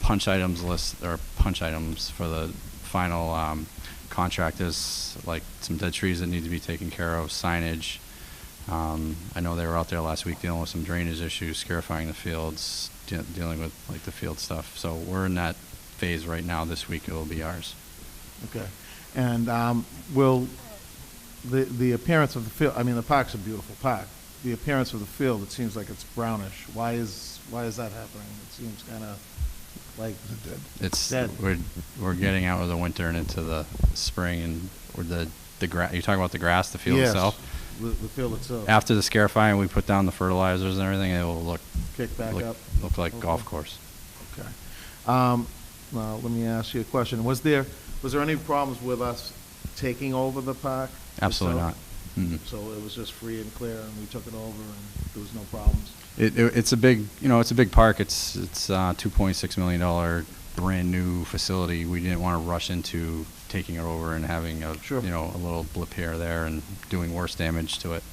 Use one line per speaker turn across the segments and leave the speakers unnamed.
punch items list or punch items for the final um, contract is like some dead trees that need to be taken care of, signage. Um, I know they were out there last week dealing with some drainage issues, scarifying the fields, de- dealing with like the field stuff. So we're in that phase right now. This week it will be ours.
Okay. And um, will, the, the appearance of the field, I mean, the park's a beautiful park. The appearance of the field, it seems like it's brownish. Why is, why is that happening? It seems kind of like,
It's
Dead.
we're we're getting out of the winter and into the spring and or the the grass. You're talking about the grass, the field
Yes,
itself.
The, the field itself.
After the scarifying, we put down the fertilizers and everything. It will look
Kick back
look,
up.
look like golf
Okay.
course.
Okay. Um, Now, let me ask you a question. Was there, was there any problems with us taking over the park?
Absolutely not. Mm-hmm.
itself?
Mm-mm.
So it was just free and clear, and we took it over, and there was no problems?
It, it, it's a big, you know, it's a big park. It's it's uh, two point six million dollar brand new facility. We didn't want to rush into taking it over and having a
Sure.
you know a little blip here or there and doing worse damage to it.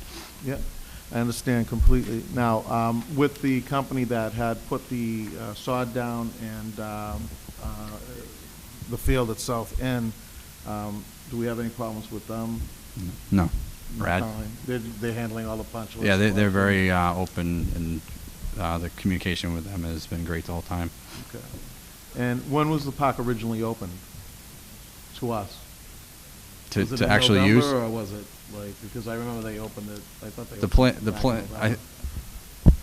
Yeah, I understand completely. Now, um, with the company that had put the uh, sod down and um, uh, the field itself in, um, do we have any problems with them?
No, Brad.
Currently? They're, they're handling all Mm-hmm. the punch lists?
Yeah, they, they're very uh, open and uh, the communication with them has been great the whole time.
Okay. And when was the park originally opened to us?
To,
Was it
to
in
actually use
November, Or was it like, because I remember they opened it, I thought they.
the
opened
plan,
it
the
back in
plan, I,
November.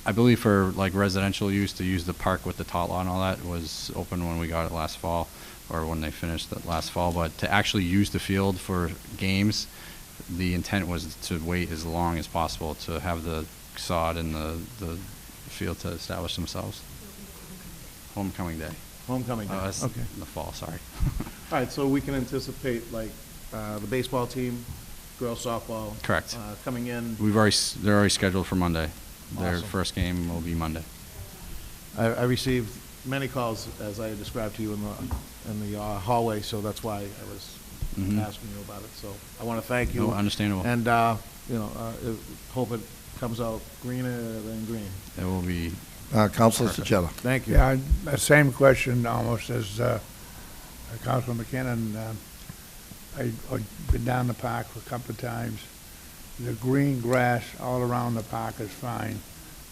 I believe for like residential use to use the park with the tot lot and all that was open when we got it last fall or when they finished it last fall. But to actually use the field for games, the intent was to wait as long as possible to have the sod and the, the field to establish themselves. Homecoming day.
Homecoming.
Oh,
day.
that's
Okay.
in the fall, sorry.
All right, so we can anticipate, like, uh, the baseball team, girls softball.
Correct.
uh, Coming in.
We've already, s- they're already scheduled for Monday. Their
Awesome.
first game will be Monday.
I, I received many calls, as I described to you in the, in the uh, hallway, so that's why I was
Mhm.
asking you about it. So I want to thank you.
No, Oh, understandable.
And, uh, you know, uh, it- hope it comes out greener than green.
It will be
Uh, Counselor Sejata.
Thank you.
Yeah, I- uh, same question almost as uh, uh, Councilman McKinnon. Um, I- I've been down the park a couple of times. The green grass all around the park is fine.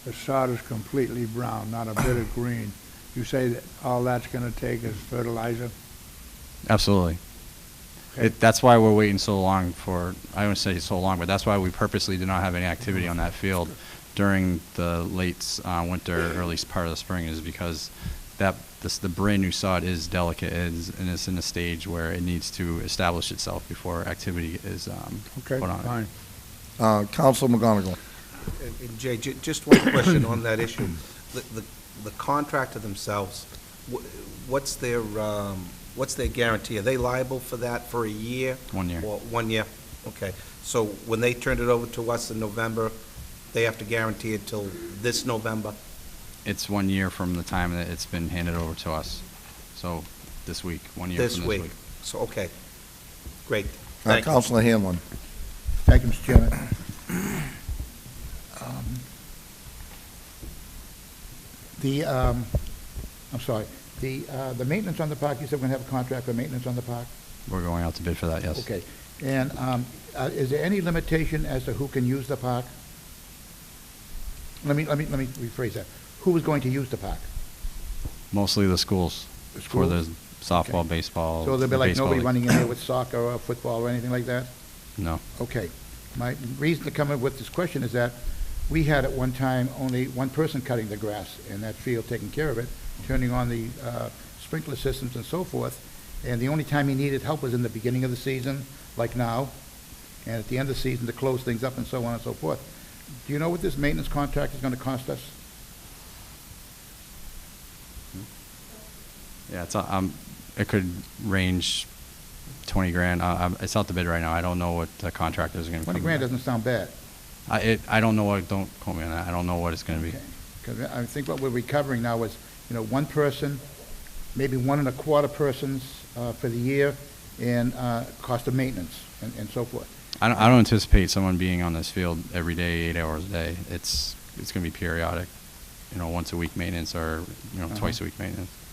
The sod is completely brown, not a bit of green. You say that all that's going to take is fertilizer?
Absolutely.
Okay.
It, that's why we're waiting so long for, I wouldn't say so long, but that's why we purposely did not have any activity on that field during the late uh, winter, early s- part of the spring, is because that, this, the brand new sod is delicate it is, and it's in a stage where it needs to establish itself before activity is um,
Okay,
put on it.
fine.
Uh, Counselor McGonigal. Uh,
And and Jay, ju- just one question on that issue. The the the contractor themselves, wh- what's their, um, what's their guarantee? Are they liable for that for a year?
One year.
Or one year? Okay. So when they turned it over to us in November, they have to guarantee it till this November?
It's one year from the time that it's been handed over to us. So this week, one year
This
from
week? So, okay. Great.
Uh,
Thank you.
Counselor Hanlon.
Thank you, Mr. Chairman. Um, The, um, I'm sorry, the, uh, the maintenance on the park, you said we're going to have a contract for maintenance on the park?
We're going out to bid for that, yes.
Okay. And um, uh, is there any limitation as to who can use the park? Let me, let me, let me rephrase that. Who is going to use the park?
Mostly the schools
The
for the
schools?
softball,
Okay.
baseball.
So there'll be
Oh, the
like
baseball
nobody
league.
running in there with soccer or football or anything like that?
No.
Okay. My reason to come up with this question is that we had at one time only one person cutting the grass in that field, taking care of it, turning on the uh, sprinkler systems and so forth. And the only time he needed help was in the beginning of the season, like now, and at the end of the season to close things up and so on and so forth. Do you know what this maintenance contract is going to cost us?
Yeah, it's, um, it could range twenty grand. Uh, um, it's out the bid right now. I don't know what the contractors are gonna come.
20 grand
with.
doesn't sound bad.
I, it, I don't know what, don't quote me on that. I don't know what it's gonna be.
Because I think what we're recovering now is, you know, one person, maybe one and a quarter persons uh, for the year, and uh, cost of maintenance and and so forth.
I don't, I don't anticipate someone being on this field every day, eight hours a day. It's, it's gonna be periodic, you know, once a week maintenance or, you know,
Uh-huh.
twice a week maintenance.